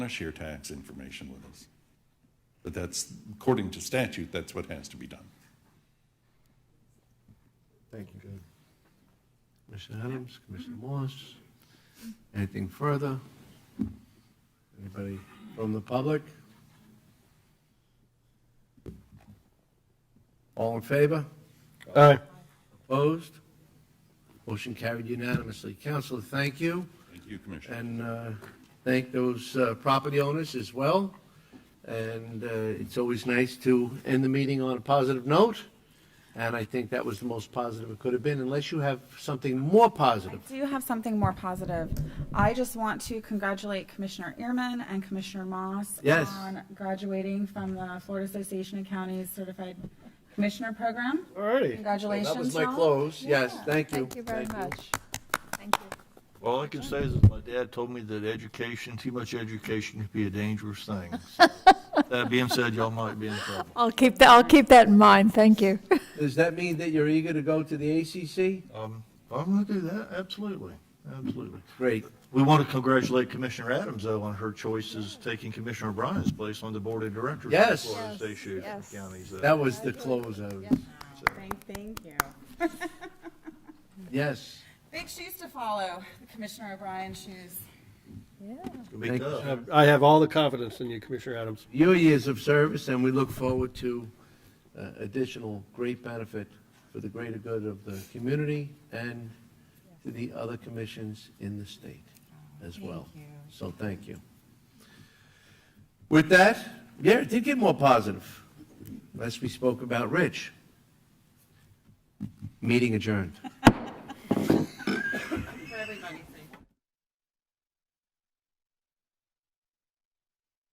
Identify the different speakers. Speaker 1: want to share tax information with us. But that's, according to statute, that's what has to be done.
Speaker 2: Thank you. Commissioner Adams, Commissioner Morris, anything further? Anybody from the public? All in favor?
Speaker 3: Aye.
Speaker 2: Opposed? Motion carried unanimously. Counselor, thank you,
Speaker 1: Thank you, Commissioner.
Speaker 2: and uh, thank those uh, property owners as well. And uh, it's always nice to end the meeting on a positive note, and I think that was the most positive it could have been, unless you have something more positive.
Speaker 4: I do have something more positive. I just want to congratulate Commissioner Ehrman and Commissioner Moss
Speaker 2: Yes.
Speaker 4: on graduating from the Florida Association of Counties Certified Commissioner Program.
Speaker 3: Alrighty.
Speaker 4: Congratulations,
Speaker 2: That was my
Speaker 4: Tom.
Speaker 2: close, yes, thank you.
Speaker 5: Thank you very much. Thank you.
Speaker 6: All I can say is that my dad told me that education, too much education can be a dangerous thing. So, That being said, y'all might be in trouble.
Speaker 5: I'll keep that, I'll keep that in mind, thank you.
Speaker 2: Does that mean that you're eager to go to the ACC?
Speaker 6: Um, I'm gonna do that, absolutely, absolutely.
Speaker 2: Great,
Speaker 6: We want to congratulate Commissioner Adams, though, on her choices taking Commissioner Bryan's place on the Board of Directors. of the
Speaker 2: Yes.
Speaker 6: Florida
Speaker 5: Yes,
Speaker 6: Association of
Speaker 5: yes.
Speaker 6: Counties. Uh,
Speaker 2: that was the close of, it.
Speaker 4: Thank, thank you.
Speaker 2: yes.
Speaker 4: Big shoes to follow, the Commissioner O'Brien shoes.
Speaker 6: it's gonna be
Speaker 2: Thank you.
Speaker 6: tough.
Speaker 3: I have all the confidence in you, Commissioner Adams.
Speaker 2: Your years of service, and we look forward to uh, additional great benefit for the greater good of the community and to the other commissions in the state as well.
Speaker 4: Thank you.
Speaker 2: So thank you. With that, yeah, it did get more positive, unless we spoke about Rich. Meeting adjourned.